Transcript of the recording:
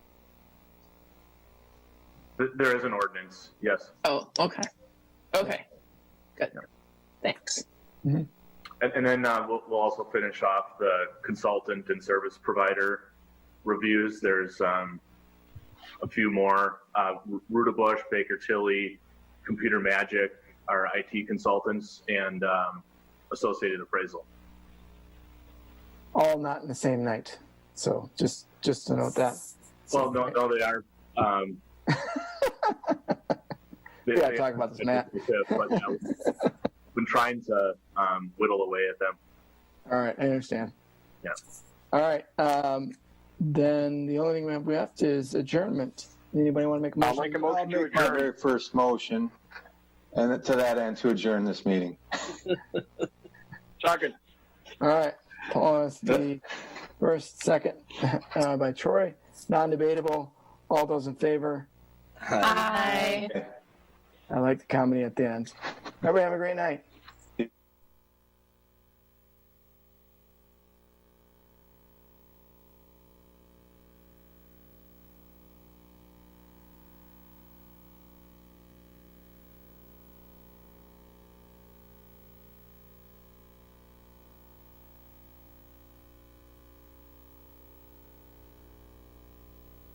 Th- There is an ordinance, yes. Oh, okay. Okay. Good. Thanks. And, and then uh, we'll, we'll also finish off the consultant and service provider reviews. There's um, a few more. Uh, Ruta Bush, Baker Tilly, Computer Magic, our IT consultants, and um, Associated Appraisal. all not in the same night. So just just to note that. Well, no, no, they are. Um, they, Yeah, they- talk about this, Matt. But, you know, been trying to um, whittle away at them. All right, I understand. Yeah. All right. Um, then the only thing we have left is adjournment. Anybody want to make a I'll motion? make a motion to My adjourn. very first motion, and to that end, to adjourn this meeting. Second. All right. Paul is the first, second uh, by Troy. Non-debatable. All those in favor. Bye. I like the comedy at the end. Everybody have a great night.